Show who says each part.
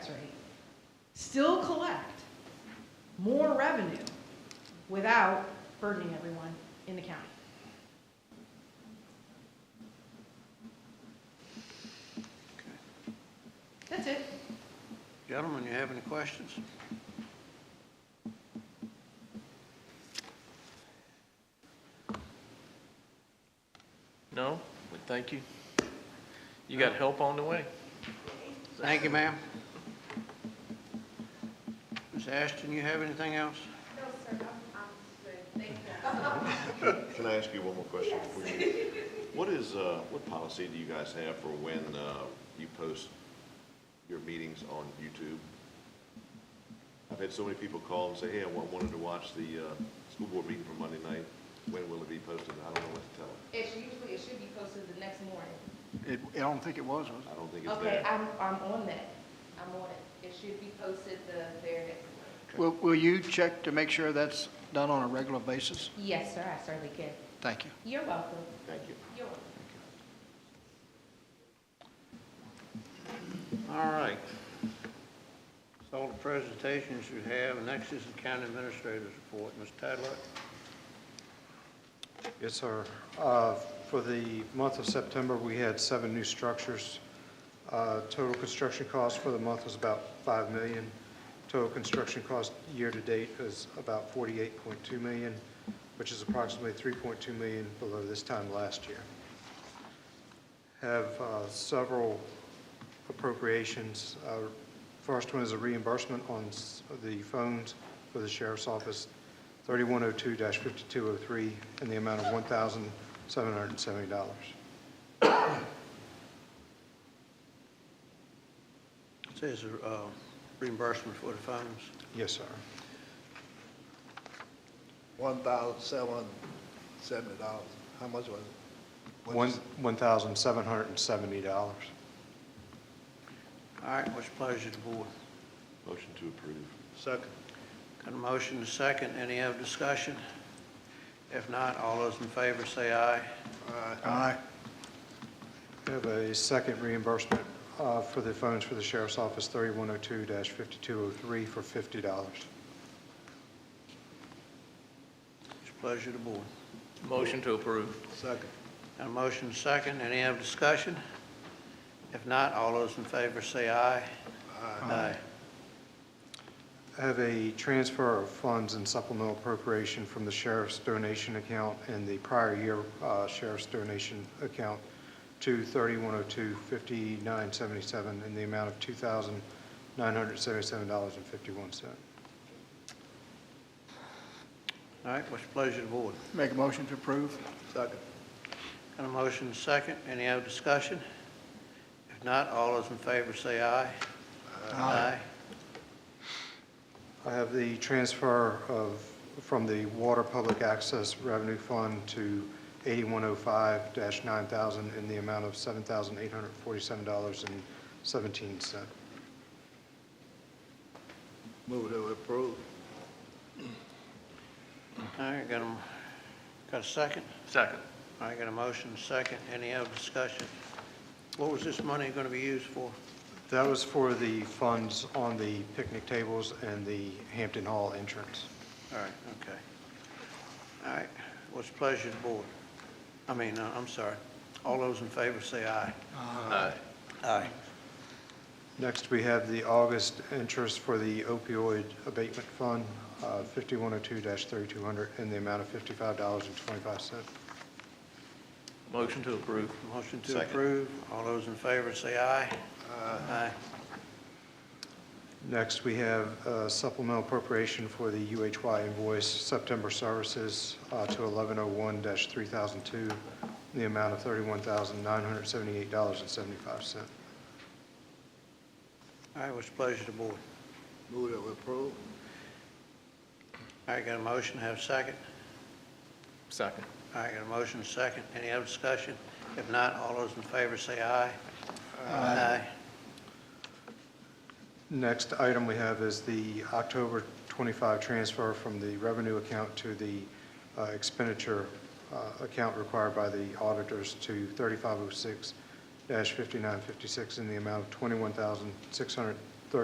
Speaker 1: still collect more revenue without burdening everyone in the county. That's it.
Speaker 2: Gentlemen, you have any questions?
Speaker 3: No? Well, thank you. You got help on the way.
Speaker 2: Thank you, ma'am. Ms. Ashton, you have anything else?
Speaker 4: Can I ask you one more question before you? What is, uh, what policy do you guys have for when uh, you post your meetings on YouTube? I've had so many people call and say, hey, I wa- wanted to watch the uh, school board meeting for Monday night. When will it be posted? I don't know what to tell them.
Speaker 5: It's usually, it should be posted the next morning.
Speaker 2: It, I don't think it was, was
Speaker 4: I don't think it's
Speaker 5: Okay,
Speaker 4: there.
Speaker 5: I'm, I'm on that. I'm on it. It should be posted the very next morning.
Speaker 2: Will, will you check to make sure that's done on a regular basis?
Speaker 5: Yes, sir, I certainly can.
Speaker 2: Thank you.
Speaker 5: You're welcome.
Speaker 4: Thank you.
Speaker 5: You're welcome.
Speaker 2: All right. So all the presentations you have, next is the county administrator's report. Ms. Tadlock?
Speaker 6: Yes, sir. Uh, For the month of September, we had seven new structures. Uh, Total construction cost for the month was about 5 million. Total construction cost year-to-date is about 48.2 million, which is approximately 3.2 million below this time last year. Have uh, several appropriations. Uh, First one is a reimbursement on s- the phones for the sheriff's office, 3102-5203, in the amount of $1,770.
Speaker 2: It Says, uh, reimbursement for the phones.
Speaker 6: Yes, sir.
Speaker 7: One thousand seven hundred seventy dollars. How much was it? What
Speaker 6: One
Speaker 7: is-
Speaker 6: $1,770.
Speaker 2: All right, what's the pleasure of the board?
Speaker 4: Motion to approve.
Speaker 7: Second.
Speaker 2: Got a motion and a second. Any other discussion? If not, all those in favor say aye.
Speaker 6: Aye. We have a second reimbursement uh, for the phones for the sheriff's office, 3102-5203, for $50.
Speaker 2: It's a pleasure of the board.
Speaker 3: Motion to approve.
Speaker 7: Second.
Speaker 2: Got a motion and a second. Any other discussion? If not, all those in favor say aye. Aye.
Speaker 6: I have a transfer of funds and supplemental appropriation from the sheriff's donation account and the prior year uh, sheriff's donation account to 3102-5977 in the amount of $2,977.51.
Speaker 2: All right, what's the pleasure of the board?
Speaker 7: Make a motion to approve? Second.
Speaker 2: Got a motion and a second. Any other discussion? If not, all those in favor say aye. Aye.
Speaker 6: I have the transfer of, from the Water Public Access Revenue Fund to 8105-9000 in the amount of $7,847.17.
Speaker 7: Move to approve.
Speaker 2: All right, got a, got a second?
Speaker 3: Second.
Speaker 2: All right, got a motion and a second. Any other discussion? What was this money going to be used for?
Speaker 6: That was for the funds on the picnic tables and the Hampton Hall entrance.
Speaker 2: All right, okay. All right, what's the pleasure of the board? I mean, uh, I'm sorry. All those in favor say aye.
Speaker 3: Aye.
Speaker 2: Aye.
Speaker 6: Next, we have the August interest for the opioid abatement fund, uh, 5102-3200, in the amount of $55.25.
Speaker 3: Motion to approve.
Speaker 2: Motion to
Speaker 4: Second.
Speaker 2: approve. All those in favor say aye. Aye.
Speaker 6: Next, we have uh, supplemental appropriation for the UHY invoice, September services uh, to 1101-3002, in the amount of $31,978.75.
Speaker 2: All right, what's the pleasure of the board?
Speaker 7: Move to approve?
Speaker 2: All right, got a motion, have a second?
Speaker 3: Second.
Speaker 2: All right, got a motion, and a second. Any other discussion? If not, all those in favor say aye. Aye.
Speaker 6: Next item we have is the October 25 transfer from the revenue account to the uh, expenditure uh, account required by the auditors oh to 3506-5956 in the amount of $21,600